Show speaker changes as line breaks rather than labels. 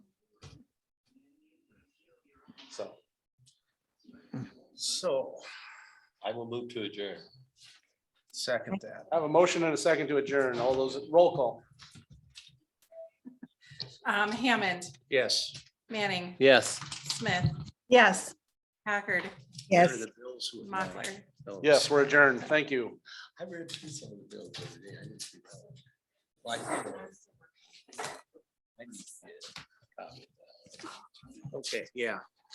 So,
I will move to adjourn.
second that.
I have a motion and a second to adjourn. All those, roll call.
Um, Hammond,
Yes.
Manning,
Yes.
Smith,
Yes,
Packard,
Here are
yes.
the bills who have not-
Mochler.
those.
Yes, we're adjourned. Thank you.
I read through some of the bills over there. I didn't see that one. Well, I did. I didn't see it. Okay, yeah.